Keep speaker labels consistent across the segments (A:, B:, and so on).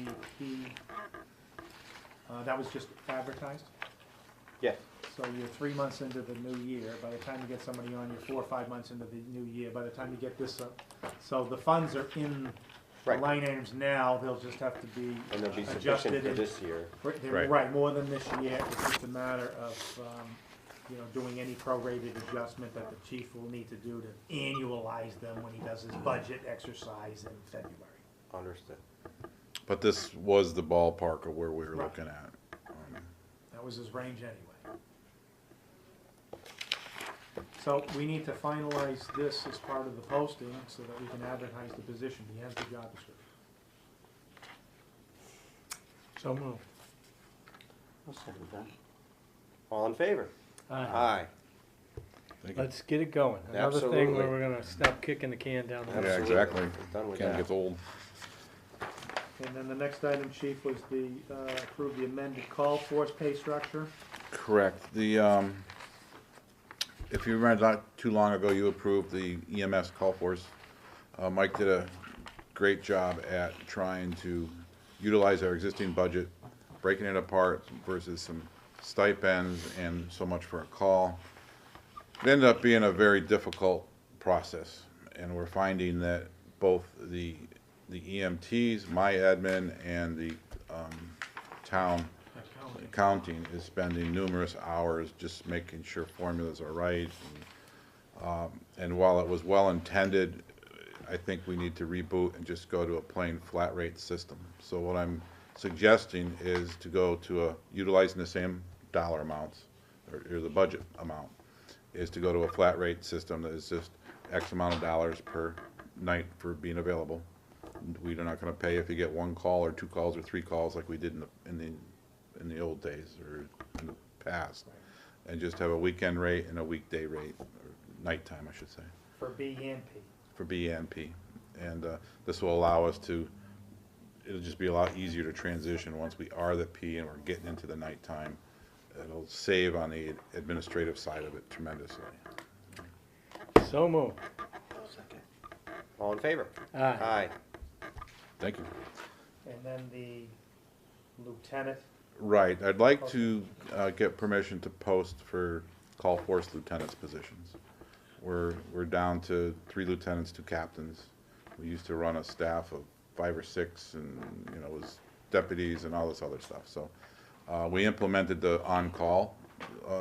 A: CMP, uh, that was just advertised.
B: Yes,
A: So you're three months into the new year, by the time you get somebody on, you're four or five months into the new year, by the time you get this up. So the funds are in the
B: Right.
A: line items now, they'll just have to be
B: and they'll be sufficient
A: adjusted.
B: for
A: and-
B: this year.
A: for- they're
C: Right.
A: Right, more than this year, it's just a matter of, um, you know, doing any prorated adjustment that the chief will need to do to annualize them when he does his budget exercise in February.
B: Understood.
C: But this was the ballpark of where we were
A: Right.
C: looking at. Um,
A: That was his range anyway. So we need to finalize this as part of the posting so that we can advertise the position. He has the job description.
D: So moved.
B: All in favor? Aye.
C: thank you.
D: Let's get it going. Another thing
B: Absolutely.
D: where we're gonna stop kicking the can down the road.
C: Yeah,
B: Absolutely.
C: exactly.
B: It's done with
C: Ken
B: that.
C: gets old.
A: And then the next item, chief, was the, uh, approve the amended call force pay structure.
C: Correct. The, um, if you remember, not too long ago, you approved the EMS call force. Uh, Mike did a great job at trying to utilize our existing budget, breaking it apart versus some stipends and so much for a call. It ended up being a very difficult process, and we're finding that both the, the EMTs, my admin, and the, um, town accounting is spending numerous hours just making sure formulas are right. and, um, And while it was well-intended, I think we need to reboot and just go to a plain flat rate system. So what I'm suggesting is to go to a, utilizing the same dollar amounts, or or the budget amount, is to go to a flat rate system that is just X amount of dollars per night for being available. We're not gonna pay if you get one call or two calls or three calls like we did in the, in the, in the old days or in the past. And just have a weekend rate and a weekday rate, or nighttime, I should say,
A: For B and P.
C: for B and P. And, uh, this will allow us to, it'll just be a lot easier to transition once we are the P and we're getting into the nighttime. It'll save on the administrative side of it tremendously.
D: So moved.
B: All in favor?
D: Aye.
B: Aye.
C: Thank you.
A: And then the lieutenant,
C: Right, I'd like to uh, get permission to post for call force lieutenants positions. We're, we're down to three lieutenants, two captains. We used to run a staff of five or six and, you know, it was deputies and all this other stuff, so. uh, We implemented the on-call, uh,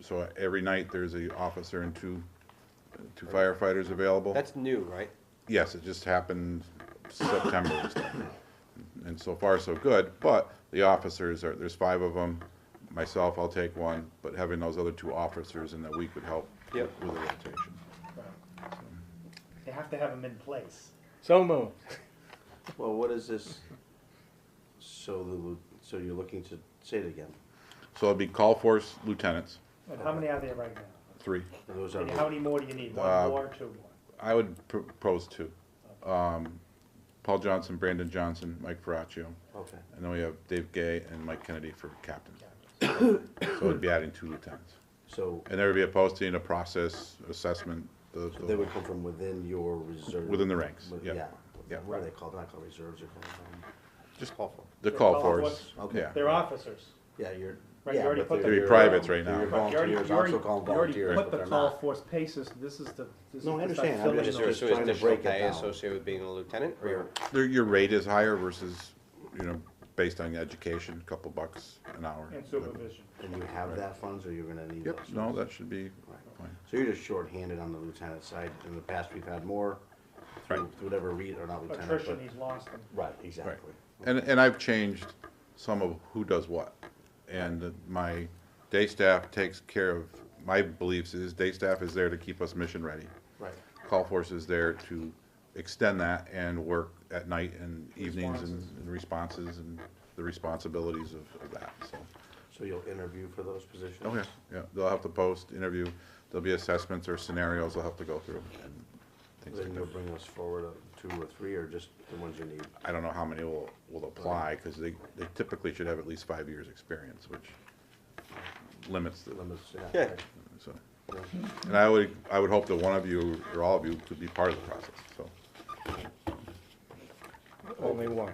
C: so every night there's a officer and two, two firefighters available.
B: That's new, right?
C: Yes, it just happened September and stuff. And so far, so good, but the officers are, there's five of them. Myself, I'll take one, but having those other two officers in the week would help with
B: Yep.
C: with the rotation.
A: they have to have him in place.
D: So moved.
E: Well, what is this? So the, lu- so you're looking to, say it again,
C: So it'd be call force lieutenants,
A: And how many are there right now?
C: three.
E: And those
A: And how
E: are,
A: many more do you need?
C: Uh,
A: One more, two more?
C: I would propose two. Um, Paul Johnson, Brandon Johnson, Mike Veraccio,
E: okay,
C: and then we have Dave Gay and Mike Kennedy for captain. So it'd be adding two lieutenants.
E: so
C: And there would be a posting, a process, assessment, the,
E: they
C: the
E: would come from within your reserve?
C: Within the ranks,
E: with-
C: yeah. Yeah.
E: Yeah, what are they called, not called reserves, they're called, um,
B: Just call for it.
C: The
A: The
C: call
A: call
C: force,
E: force. Okay.
C: yeah.
A: They're officers.
E: yeah, you're.
A: Right, you already put them-
C: They're privates right now.
E: Your
A: But you already-
E: volunteers,
A: you already-
E: also called
A: you already
E: volunteers, but
A: Put
E: they're
A: the call
E: not.
A: force paces, this is the, this is.
E: No, I
A: to start
E: understand. I'm
A: filling
E: just-
A: those-
E: just trying to break it down.
B: associated with being a lieutenant, or your
C: Their, your rate is higher versus, you know, based on education, a couple bucks an hour.
A: And supervision.
E: And you have that funds, or you're gonna need those?
C: Yep, no,
E: funds?
C: that should be
E: Right.
C: fine.
E: So you're just shorthanded on the lieutenant side, in the past, we've had more, through
C: Right.
E: through whatever read, or not lieutenant, but.
A: Attrition, he's lost them.
E: Right, exactly.
C: And, and I've changed some of who does what. And my day staff takes care of, my beliefs is day staff is there to keep us mission ready.
E: Right,
C: Call force is there to extend that and work at night and evenings and and responses and the responsibilities of, of that, so.
E: so you'll interview for those positions?
C: Oh, yeah, yeah, they'll have to post, interview, there'll be assessments or scenarios they'll have to go through and things
E: Then
C: like
E: you'll
C: that.
E: bring us forward uh, two or three, or just the ones you need?
C: I don't know how many will, will apply, because they, they typically should have at least five years' experience, which limits the,
E: Limits, yeah.
B: Yeah.
E: right.
C: so. And I would, I would hope that one of you, or all of you, could be part of the process, so.
D: Only one.